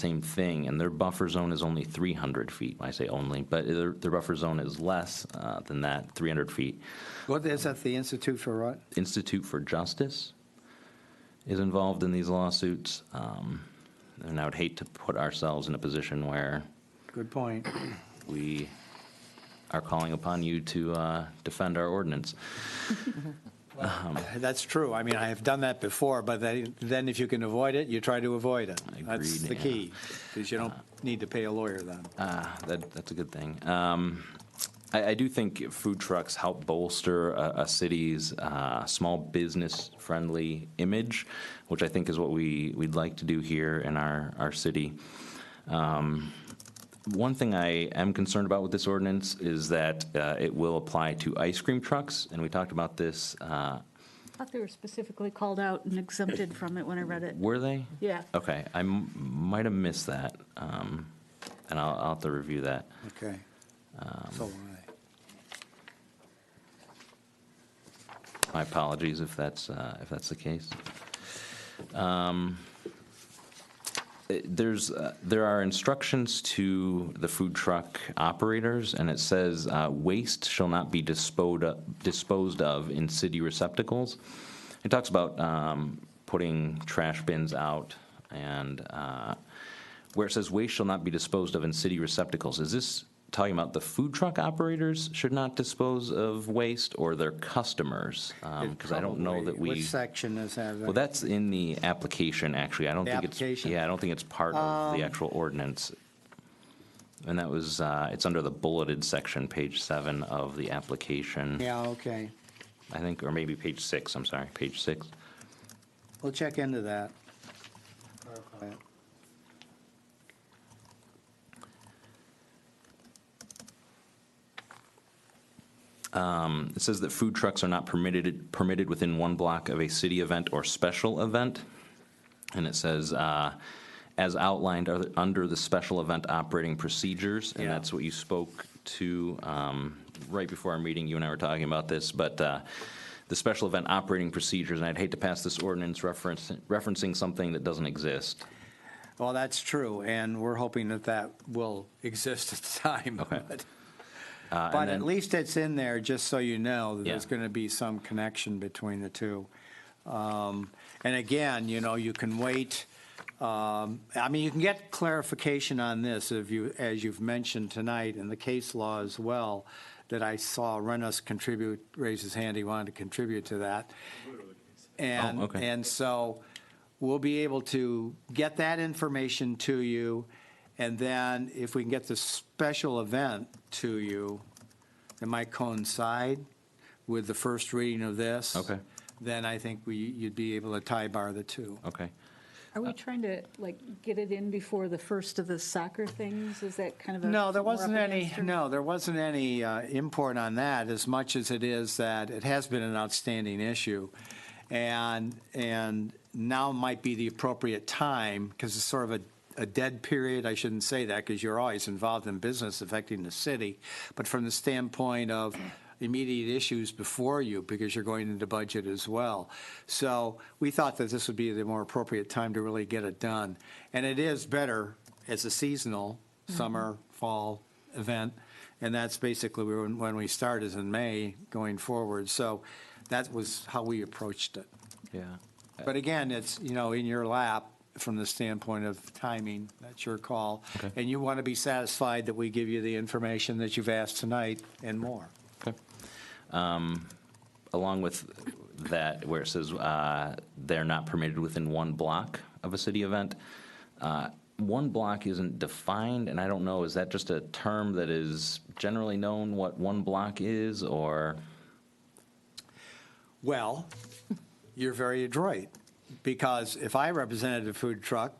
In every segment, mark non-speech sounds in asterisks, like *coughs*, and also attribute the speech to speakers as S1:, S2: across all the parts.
S1: same thing, and their buffer zone is only 300 feet. I say only, but their, their buffer zone is less uh, than that, 300 feet.
S2: What is that, the Institute for what?
S1: Institute for Justice is involved in these lawsuits, um, and I would hate to put ourselves in a position where
S2: Good
S1: *coughs*
S2: point.
S1: we are calling upon you to uh, defend our ordinance.
S2: That's true. I mean, I have done that before, but then, then if you can avoid it, you try to avoid it. That's
S1: Agreed,
S2: the
S1: yeah. Uh,
S2: key, because you don't need to pay a lawyer then.
S1: Ah, that, that's a good thing. Um, I, I do think food trucks help bolster a, a city's uh, small business friendly image, which I think is what we, we'd like to do here in our, our city. Um, one thing I am concerned about with this ordinance is that uh, it will apply to ice cream trucks, and we talked about this. Uh,
S3: thought they were specifically called out and exempted from it when I read it.
S1: were they?
S3: Yeah.
S1: Okay, I m- might have missed that, um, and I'll, I'll have to review that.
S2: Okay.
S1: um,
S2: So why?
S1: My apologies if that's, uh, if that's the case. Um, it- There's, uh, there are instructions to the food truck operators, and it says uh, waste shall not be disposed, o- disposed of in city receptacles. It talks about um, putting trash bins out, and uh, where it says waste shall not be disposed of in city receptacles, is this talking about the food truck operators should not dispose of waste, or their customers? Because um, I don't know that
S2: Probably.
S1: we.
S2: Which section is that?
S1: Well, that's in the application, actually. I don't
S2: The
S1: think it's.
S2: application? Um.
S1: Yeah, I don't think it's part of the actual ordinance. And that was, uh, it's under the bulleted section, page seven of the application,
S2: Yeah, okay.
S1: I think, or maybe page six, I'm sorry, page six.
S2: We'll check into that.
S1: It says that food trucks are not permitted, permitted within one block of a city event or special event. And it says, uh, as outlined are the- under the special event operating procedures, and
S2: Yeah.
S1: that's what you spoke to um, right before our meeting, you and I were talking about this, but uh, the special event operating procedures, and I'd hate to pass this ordinance reference- referencing something that doesn't exist.
S2: Well, that's true, and we're hoping that that will exist at the *laughs* time.
S1: Okay.
S2: but-
S1: Uh, and
S2: But
S1: then-
S2: at least it's in there, just so you know, that there's
S1: Yeah.
S2: going to be some connection between the two. Um, And again, you know, you can wait, um, I mean, you can get clarification on this, if you, as you've mentioned tonight, in the case law as well, that I saw Renus contribute, raise his hand, he wanted to contribute to that. And,
S1: Oh, okay.
S2: and so we'll be able to get that information to you, and then if we can get the special event to you, that might coincide with the first reading of this.
S1: Okay.
S2: Then I think we, you'd be able to tie bar the two.
S1: Okay.
S3: Are
S2: Uh,
S3: we trying to, like, get it in before the first of the soccer things? Is that kind of a?
S2: No, there
S3: we're up
S2: wasn't any,
S3: against or-
S2: no, there wasn't any uh, import on that, as much as it is that it has been an outstanding issue. And, and now might be the appropriate time, because it's sort of a, a dead period, I shouldn't say that, because you're always involved in business affecting the city, but from the standpoint of immediate issues before you, because you're going into budget as well. So we thought that this would be the more appropriate time to really get it done. And it is better as a seasonal, summer, fall event. And that's basically when, when we start is in May going forward. So that was how we approached it.
S1: Yeah.
S2: But again, it's, you know, in your lap from the standpoint of timing, that's your call.
S1: Okay.
S2: And you want to be satisfied that we give you the information that you've asked tonight and more.
S1: Okay. Um, Along with that, where it says uh, they're not permitted within one block of a city event, uh, one block isn't defined, and I don't know, is that just a term that is generally known what one block is, or?
S2: Well, *laughs* you're very adroit, because if I represented a food truck,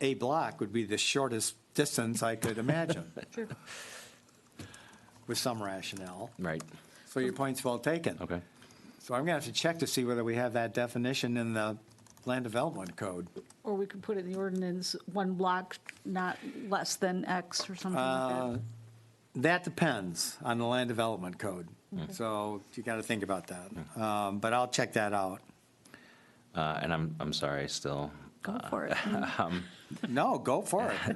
S2: a block would be the shortest distance I could
S1: *laughs*
S2: imagine,
S3: Sure.
S2: with some rationale.
S1: Right,
S2: So your point's well taken.
S1: okay.
S2: So I'm going to have to check to see whether we have that definition in the land development code.
S3: Or we could put it in the ordinance, one block, not less than X or something like
S2: Uh,
S3: that.
S2: That depends on the land development code. So you got to think about that. Um, But I'll check that out.
S1: Uh, And I'm, I'm sorry, I still
S3: Go for it.
S2: No, go for it.